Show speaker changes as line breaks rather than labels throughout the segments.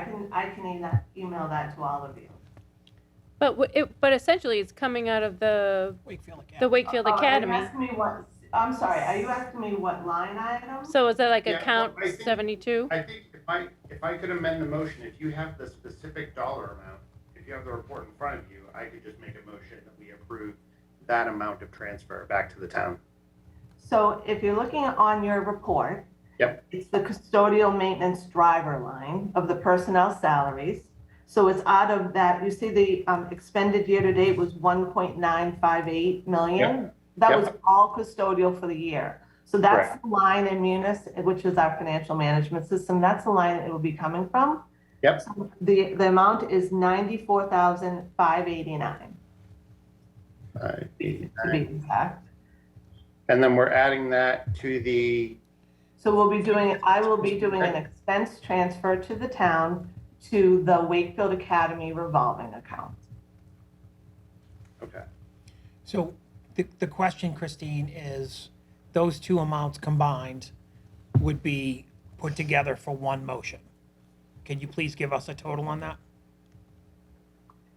can, I can email, email that to all of you.
But w- it, but essentially, it's coming out of the
Wakefield Academy.
the Wakefield
Oh, are you
Academy.
asking me what, I'm sorry, are you asking me what line item?
So is that like
Yeah, well,
account
I think-
seventy-two?
I think if I, if I could amend the motion, if you have the specific dollar amount, if you have the report in front of you, I could just make a motion that we approve that amount of transfer back to the town.
So if you're looking on your report.
Yep.
It's the custodial maintenance driver line of the personnel salaries. So it's out of that, you see the um, expended year-to-date was one point nine five eight million? That
Yep.
was all custodial for the year. So that's the line in Munis, which is our financial management system, that's the line it will be coming from.
Yep.
So The, the amount is ninety-four thousand five eighty-nine, to be exact.
And then we're adding that to the,
So we'll be doing, I will be doing an expense transfer to the town to the Wakefield Academy revolving account.
okay,
So the, the question, Christine, is those two amounts combined would be put together for one motion. Can you please give us a total on that?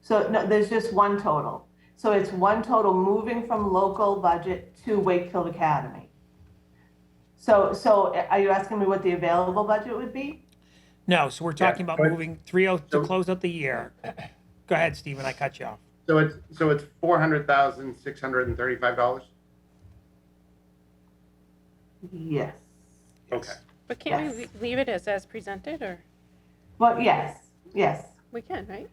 So no, there's just one total. So it's one total moving from local budget to Wakefield Academy. So, so are you asking me what the available budget would be?
No, so we're talking about
go ahead.
moving three oh, to
So-
close out the year. Go ahead, Stephen, I cut you off.
so it's, so it's four hundred thousand, six hundred and thirty-five dollars?
Yes.
Okay,
But can't we
Yes.
leave it as as presented, or
Well, yes, yes.
we can, right?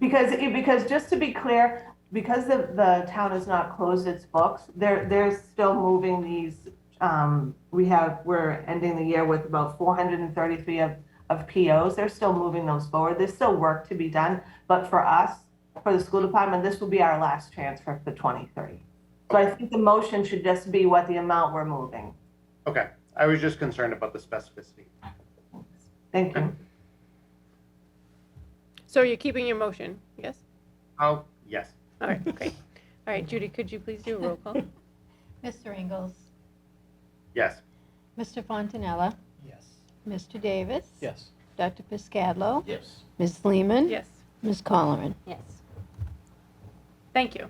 Because, it- because just to be clear, because the, the town has not closed its books, they're, they're still moving these, um, we have, we're ending the year with about four hundred and thirty-three of, of POs, they're still moving those forward, there's still work to be done, but for us, for the school department, this will be our last transfer for twenty-three. So I think the motion should just be what the amount we're moving.
okay. I was just concerned about the specificity.
Thank you.
So you're keeping your motion, yes?
Oh, yes.
All right, great. All right, Judy, could you please do a roll call?
Mr. Ingles,
Yes.
Mr. Fontanella,
Yes.
Mr. Davis.
Yes.
Dr. Piscadlo,
Yes.
Ms. Lehman.
Yes.
Ms. Colleran.
Yes. Thank you.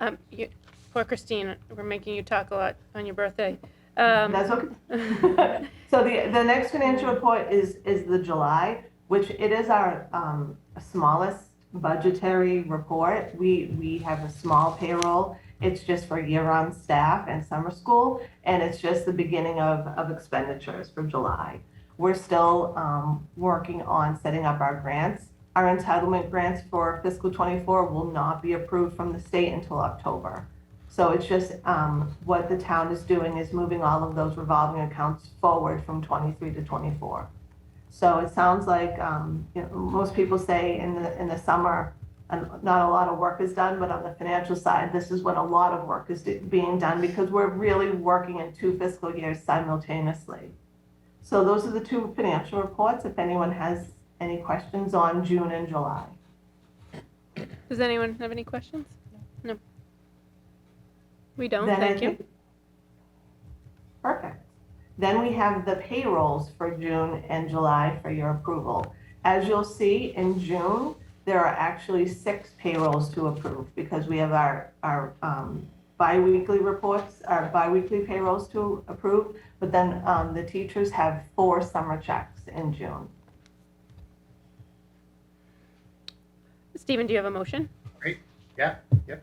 Um, you, poor Christine, we're making you talk a lot on your birthday. Um,
That's okay. So the, the next financial report is, is the July, which it is our um, smallest budgetary report. We, we have a small payroll. It's just for year-round staff and summer school, and it's just the beginning of, of expenditures for July. We're still um, working on setting up our grants. Our entitlement grants for fiscal '24 will not be approved from the state until October. So it's just, um, what the town is doing is moving all of those revolving accounts forward from twenty-three to twenty-four. So it sounds like, um, you know, most people say in the, in the summer, and not a lot of work is done, but on the financial side, this is when a lot of work is do- being done because we're really working in two fiscal years simultaneously. So those are the two financial reports, if anyone has any questions on June and July.
Does anyone have any questions? No. We don't,
Then I
thank you.
think- Perfect. Then we have the payrolls for June and July for your approval. As you'll see, in June, there are actually six payrolls to approve because we have our, our um, biweekly reports, our biweekly payrolls to approve. But then um, the teachers have four summer checks in June.
Stephen, do you have a motion?
Yeah, yep.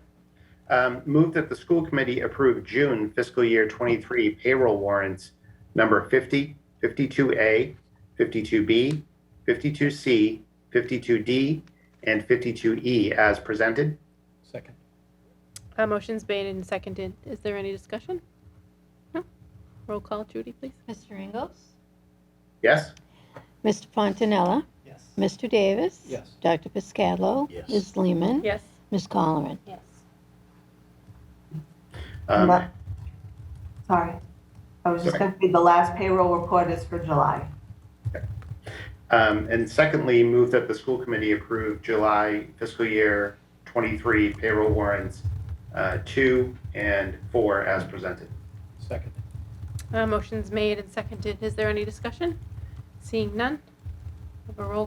Um, move that the school committee approve June fiscal year 23 payroll warrants number 50, 52A, 52B, 52C, 52D, and 52E as presented.
Second.
A Uh, motion's made and seconded. Is there any discussion? No? Roll call, Judy, please.
Mr. Ingles,
Yes?
Mr. Fontanella,
Yes.
Mr. Davis.
Yes.
Dr. Piscadlo.
Yes.
Ms. Lehman.
Yes.
Ms. Colleran.
Yes.
Um,
But- Sorry. I was just
Sorry.
going to say the last payroll report is for July.
um, and secondly, move that the school committee approve July fiscal year 23 payroll warrants uh, 2 and 4 as presented.
Second.
Uh, A motion's made and seconded. Is there any discussion? Seeing none? Have a roll